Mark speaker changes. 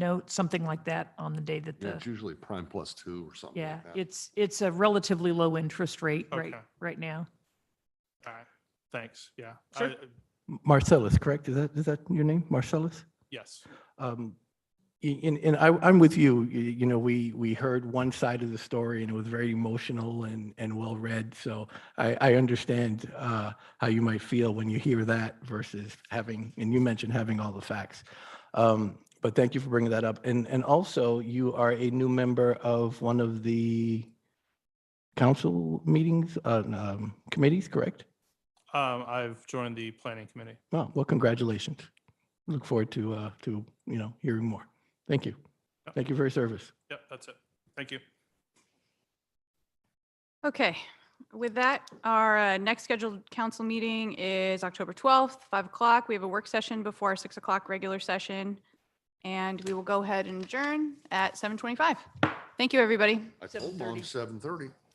Speaker 1: note, something like that on the day that
Speaker 2: Yeah,
Speaker 1: the,
Speaker 2: it's usually prime plus two or something
Speaker 1: yeah,
Speaker 2: like that.
Speaker 1: it's, it's a relatively low interest rate right,
Speaker 3: Okay.
Speaker 1: right now.
Speaker 3: All right, thanks, yeah.
Speaker 1: Sure.
Speaker 3: I- I-
Speaker 4: Marcellus, correct? Is that, is that your name, Marcellus?
Speaker 3: Yes,
Speaker 4: Um, y- And, and I, I'm with you, Y- you know, we, we heard one side of the story and it was very emotional and, and well-read. So I, I understand uh, how you might feel when you hear that versus having, and you mentioned having all the facts. Um, But thank you for bringing that up. And, and also you are a new member of one of the council meetings, uh, um, committees, correct?
Speaker 3: um, I've joined the planning committee.
Speaker 4: Well, well, congratulations. Look forward to, uh, to, you know, hearing more. Thank you.
Speaker 3: Yep.
Speaker 4: Thank you for your service.
Speaker 3: Yep, that's it. Thank you.
Speaker 5: Okay, with that, our uh, next scheduled council meeting is October 12th, 5 o'clock. We have a work session before our 6 o'clock regular session. And we will go ahead and adjourn at 7:25. Thank you, everybody.
Speaker 2: I told mom seven thirty.